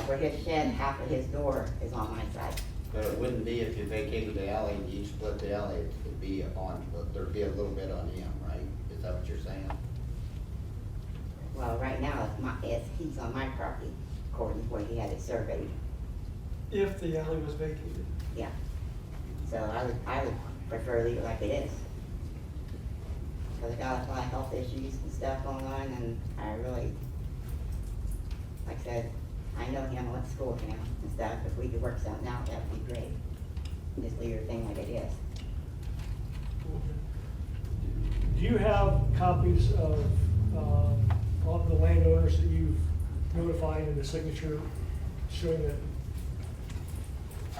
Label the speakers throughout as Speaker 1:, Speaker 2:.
Speaker 1: where his shed, half of his door is on my side.
Speaker 2: But it wouldn't be if you vacated the alley and you split the alley, it'd be on, there'd be a little bit on him, right? Is that what you're saying?
Speaker 1: Well, right now, it's my, it's, he's on my property, according to where he had it surveyed,
Speaker 3: if the alley was vacated.
Speaker 1: yeah. So I would, I would prefer leave it like it is. Cause I got a lot of health issues and stuff going on, and I really, like I said, I know him, I went to school with him and stuff, if we could work something out, that'd be great. Just leave your thing like it is.
Speaker 4: Do you have copies of, um, of the landowners that you've notified and the signature showing that?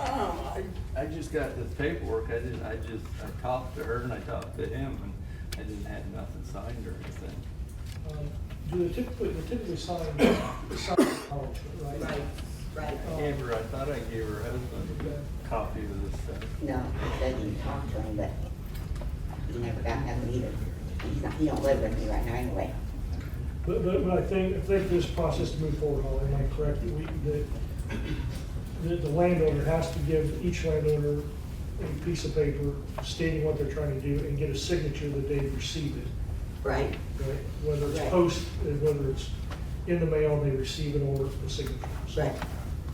Speaker 5: Um, I, I just got this paperwork, I didn't, I just, I talked to her and I talked to him, and I didn't have nothing signed or anything.
Speaker 4: um, Do they typically, they typically sign, sign acknowledgement, right? Um,
Speaker 1: right.
Speaker 5: I gave her, I thought I gave her husband a copy of this stuff.
Speaker 1: No, he doesn't even talk to him, but he never got nothing either. He's not, he don't live with me right now anyway.
Speaker 4: But, but, but I think, I think this process to move forward, Holly, am I correct, that we, that, that the landowner has to give each landowner a piece of paper stating what they're trying to do and get a signature that they've received it,
Speaker 1: Right.
Speaker 4: right? Whether it's
Speaker 1: Right.
Speaker 4: post, and whether it's in the mail, and they receive an order for the signature. So
Speaker 1: Right,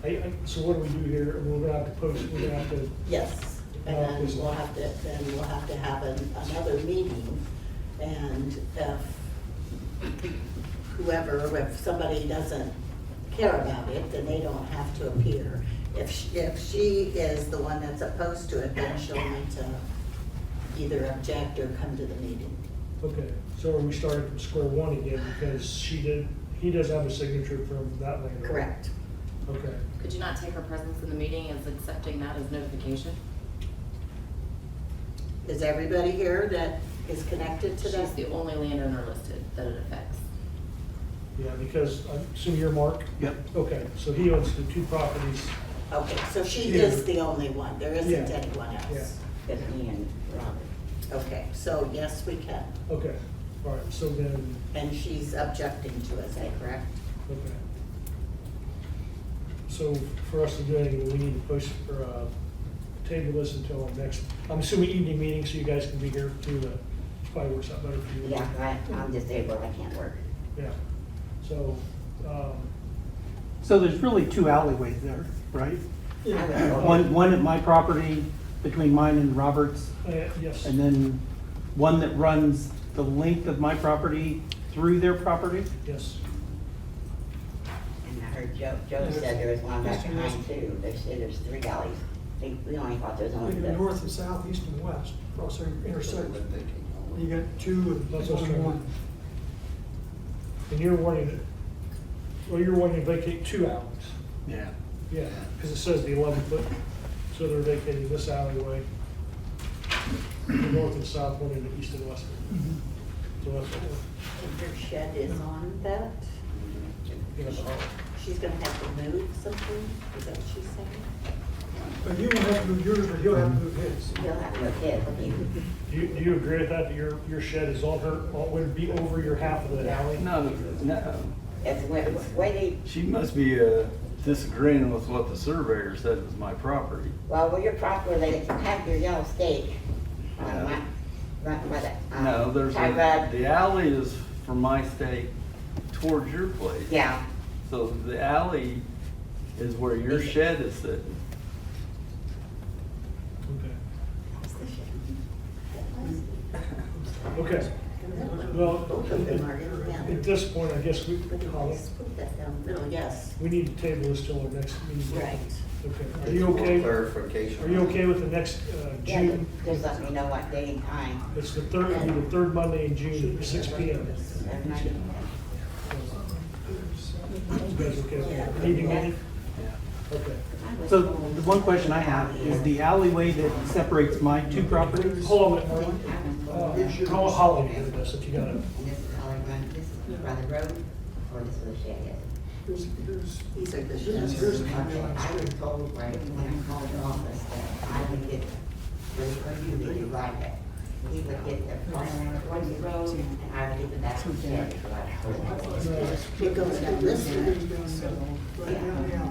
Speaker 4: I, I, so what do we do here? We're gonna have to post, we're gonna have to,
Speaker 6: Yes, and then we'll have to, then we'll have to have an- another meeting, and if whoever, if somebody doesn't care about it, then they don't have to appear. If, sh- if she is the one that's opposed to it, then she'll need to either object or come to the meeting.
Speaker 4: okay, so are we starting from square one again because she did, he does have a signature from that landowner?
Speaker 6: Correct.
Speaker 4: Okay.
Speaker 7: Could you not take her presence in the meeting as accepting that as notification?
Speaker 6: Is everybody here that is connected to
Speaker 7: She's
Speaker 6: that?
Speaker 7: the only landowner listed that it affects.
Speaker 4: Yeah, because, I assume you're Mark?
Speaker 5: Yep.
Speaker 4: Okay, so he owns the two properties,
Speaker 6: Okay, so she is the only one, there isn't
Speaker 4: Yeah.
Speaker 6: anyone else.
Speaker 1: just me and Robert.
Speaker 6: Okay, so yes, we can.
Speaker 4: okay, all right, so then,
Speaker 6: And she's objecting to it, is that correct?
Speaker 4: okay. So for us to do anything, we need to push for, uh, table this until our next, I'm assuming evening meeting, so you guys can be here too, uh, probably works out better for you.
Speaker 1: Yeah, I, I'm disabled, I can't work.
Speaker 4: Yeah, so, um,
Speaker 8: So there's really two alleyways there, right?
Speaker 1: I
Speaker 4: yeah,
Speaker 1: would go-
Speaker 8: One, one at my property between mine and Roberts,
Speaker 4: uh, yes,
Speaker 8: and then one that runs the length of my property through their property?
Speaker 4: yes.
Speaker 1: And I heard Joe, Joe said there was one back behind too, they said there's three alleys. We, we only thought there was
Speaker 3: We
Speaker 1: only
Speaker 3: go
Speaker 1: the,
Speaker 3: north and south, east and west, across every intersection.
Speaker 2: Wouldn't they keep
Speaker 3: You
Speaker 2: going?
Speaker 3: got two and
Speaker 4: That's what's
Speaker 3: only
Speaker 4: right.
Speaker 3: one.
Speaker 4: And you're wanting to, well, you're wanting to vacate two alleys.
Speaker 5: Yeah.
Speaker 4: Yeah, because it says the eleven foot, so they're vacating this alleyway, the north and south one, and the east and west. one.
Speaker 8: Mm-hmm.
Speaker 4: So that's what we're,
Speaker 6: And her shed is on that?
Speaker 4: giving us all.
Speaker 6: She's gonna have to move something, is that what she's saying?
Speaker 3: But you don't have to move yours, but he'll have to move his.
Speaker 1: he'll have no kids, he,
Speaker 4: Do you, do you agree with that, that your, your shed is on her, on- would it be over your half of the alley?
Speaker 5: No, no,
Speaker 1: it's the way, the way they,
Speaker 5: she must be, uh, disagreeing with what the surveyor said was my property.
Speaker 1: well, where your property, they have your yellow stake. On my, right by the, um.
Speaker 5: No, there's,
Speaker 1: I
Speaker 5: a-
Speaker 1: read,
Speaker 5: the alley is from my state towards your place.
Speaker 1: yeah,
Speaker 5: So the alley is where your shed is sitting.
Speaker 4: Okay, okay, well,
Speaker 6: Both of them are in
Speaker 4: at
Speaker 6: that.
Speaker 4: this point, I guess we,
Speaker 6: But
Speaker 4: Holly,
Speaker 6: he's put that down the middle, yes,
Speaker 4: we need to table this till our next meeting.
Speaker 6: right.
Speaker 4: Okay, are
Speaker 2: Just
Speaker 4: you
Speaker 2: for
Speaker 4: okay, are
Speaker 2: Clarification.
Speaker 4: you okay with the next, uh,
Speaker 1: yeah,
Speaker 4: June?
Speaker 1: just- just let me know what day and time.
Speaker 4: It's the third, it'll be the third Monday in June, six P M.
Speaker 1: That's my-
Speaker 4: You guys okay with that?
Speaker 6: Yeah.
Speaker 4: Evening meeting?
Speaker 5: Yeah.
Speaker 4: Okay.
Speaker 8: So the one question I have is the alleyway that separates my two properties?
Speaker 4: Hold on,
Speaker 1: I
Speaker 4: Mark.
Speaker 1: think I was-
Speaker 4: Uh, Call Holly into this if you got it.
Speaker 1: And this is how I run, this is by the road, or this is the shed is?
Speaker 3: Here's, here's,
Speaker 6: These are the
Speaker 3: here's,
Speaker 6: sheds.
Speaker 3: here's the
Speaker 1: Okay,
Speaker 3: county
Speaker 1: I
Speaker 3: line.
Speaker 1: was told, right, when I called the office, that I would get, really, for you, that you like it. He would get the farm around the road, and I would get the back shed.
Speaker 6: It goes down this way.
Speaker 3: Right down the alley.